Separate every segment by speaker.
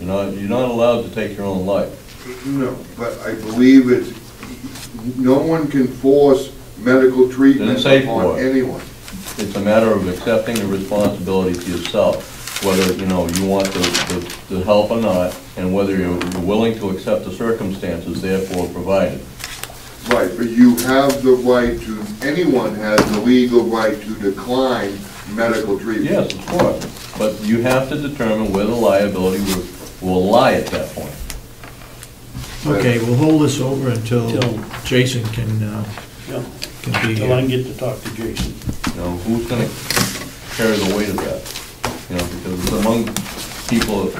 Speaker 1: not, you're not allowed to take your own life.
Speaker 2: No, but I believe it's, no one can force medical treatment
Speaker 1: Didn't say
Speaker 2: upon
Speaker 1: for.
Speaker 2: anyone.
Speaker 1: It's a matter of accepting the responsibility to yourself, whether, you know, you want the, the, the help or not, and whether you're willing to accept the circumstances therefore provided.
Speaker 2: Right, but you have the right to, anyone has the legal right to decline medical treatment.
Speaker 1: Yes, of course, but you have to determine where the liability will, will lie at that point.
Speaker 3: Okay, we'll hold this over until
Speaker 4: Till-
Speaker 3: Jason can, uh,
Speaker 4: Yeah,
Speaker 3: can be
Speaker 4: Till I can
Speaker 3: here.
Speaker 4: get to talk to Jason.
Speaker 1: You know, who's gonna carry the weight of that? You know, because it's among people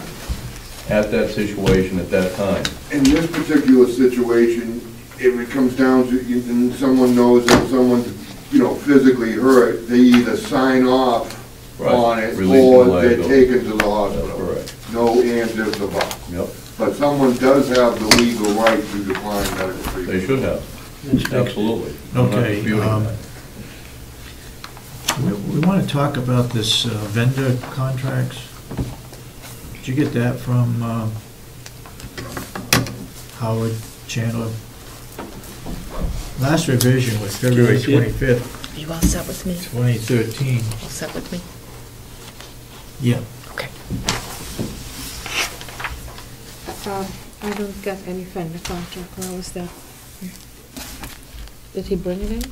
Speaker 1: at that situation at that time.
Speaker 2: In this particular situation, if it comes down to, and someone knows that someone's, you know, physically hurt, they either sign off
Speaker 1: Right,
Speaker 2: on it
Speaker 1: releasing
Speaker 2: or they're
Speaker 1: liability.
Speaker 2: taken to the hospital.
Speaker 1: That's correct.
Speaker 2: No ands, ifs, or buts.
Speaker 1: Yep,
Speaker 2: But someone does have the legal right to decline medical
Speaker 1: they
Speaker 2: treatment.
Speaker 1: should have, absolutely. I'm not
Speaker 3: Okay,
Speaker 1: disputing
Speaker 3: um,
Speaker 1: that.
Speaker 3: We- We want to talk about this uh, vendor contracts. Did you get that from uh, Howard Chandler? Last revision was February
Speaker 4: Yes, yeah.
Speaker 3: 25th,
Speaker 5: You all set with me?
Speaker 3: 2013.
Speaker 5: All set with me?
Speaker 3: Yeah.
Speaker 5: Okay.
Speaker 6: Um, I don't get any vendor contract, where was that? Did he bring it in?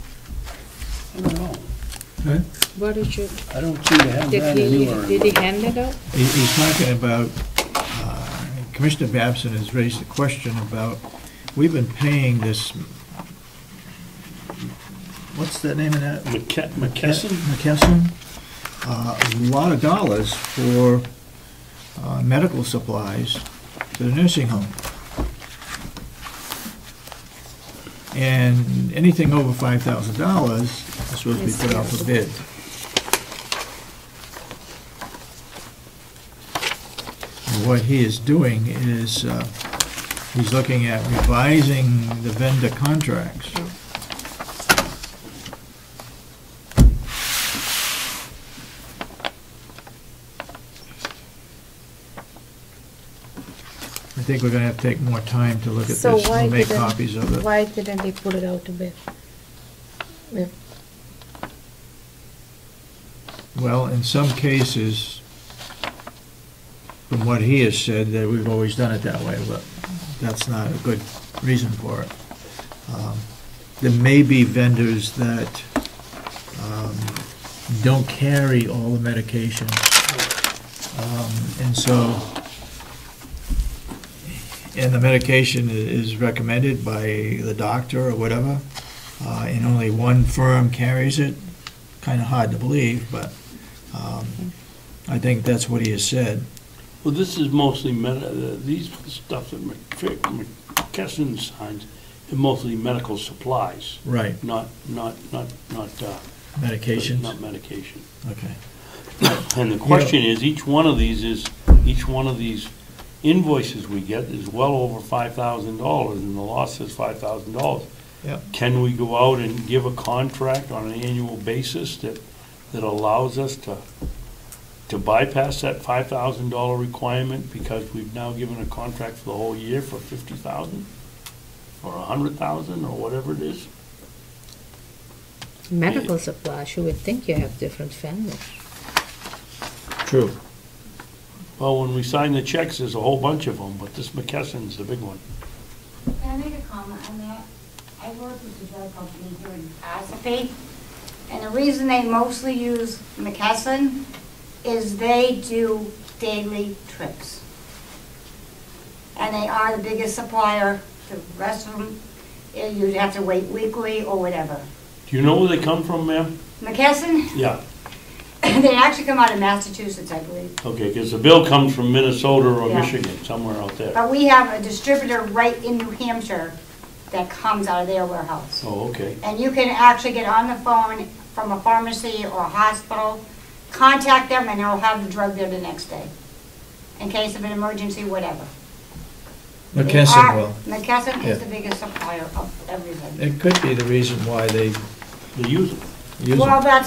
Speaker 4: I don't know.
Speaker 6: Where did you,
Speaker 4: I don't seem to have
Speaker 6: did
Speaker 4: that
Speaker 6: he,
Speaker 4: anywhere.
Speaker 6: did he hand it out?
Speaker 3: He- He's talking about, uh, Commissioner Babson has raised the question about, we've been paying this, what's the name of that?
Speaker 4: McKe- McKesson?
Speaker 3: McKesson, uh, a lot of dollars for uh, medical supplies to the nursing home. And anything over $5,000 is supposed to be put out for bid. And What he is doing is, uh, he's looking at revising the vendor contracts. I think we're gonna have to take more time to look at this.
Speaker 5: So why
Speaker 3: We'll make
Speaker 5: didn't-
Speaker 3: copies of it.
Speaker 5: Why didn't they put it out to bid? If-
Speaker 3: Well, in some cases, from what he has said, that we've always done it that way, but that's not a good reason for it. Um, There may be vendors that um, don't carry all the medications, Um, and so, and the medication i- is recommended by the doctor or whatever, uh, and only one firm carries it, kind of hard to believe, but um, I think that's what he has said.
Speaker 4: Well, this is mostly, med- uh, these stuff that Mc- McKesson signs are mostly medical supplies,
Speaker 3: Right.
Speaker 4: not, not, not, not, uh, not
Speaker 3: Medications?
Speaker 4: medication.
Speaker 3: Okay.
Speaker 4: And the question is, each one of these is, each one of these invoices we get is well over five thousand dollars, and the law says five thousand dollars.
Speaker 3: Yep.
Speaker 4: Can we go out and give a contract on an annual basis that, that allows us to, to bypass that five thousand dollar requirement because we've now given a contract for the whole year for fifty thousand? Or a hundred thousand, or whatever it is?
Speaker 5: Medical supplies, you would think you have different families.
Speaker 3: True.
Speaker 4: Well, when we sign the checks, there's a whole bunch of them, but this McKesson's the big one.
Speaker 7: Can I make a comment on that? I work with the drug company here in Ossipee, and the reason they mostly use McKesson is they do daily trips. And they are the biggest supplier. The rest of them, eh, you'd have to wait weekly or whatever.
Speaker 4: Do you know where they come from, ma'am?
Speaker 7: McKesson,
Speaker 4: Yeah,
Speaker 7: they actually come out of Massachusetts, I believe.
Speaker 4: okay, because the bill comes from Minnesota or
Speaker 7: Yeah. Oh.
Speaker 4: Michigan, somewhere out there.
Speaker 7: But we have a distributor right in New Hampshire that comes out of their warehouse.
Speaker 4: Oh, okay.
Speaker 7: and you can actually get on the phone from a pharmacy or a hospital, contact them, and they'll have the drug there the next day, in case of an emergency, whatever. They
Speaker 3: McKesson
Speaker 7: are-
Speaker 3: will.
Speaker 7: McKesson
Speaker 3: Yeah.
Speaker 7: is the biggest supplier of everything.
Speaker 3: It could be the reason why they
Speaker 4: They use it.
Speaker 3: use
Speaker 7: Well,
Speaker 3: them.
Speaker 7: that's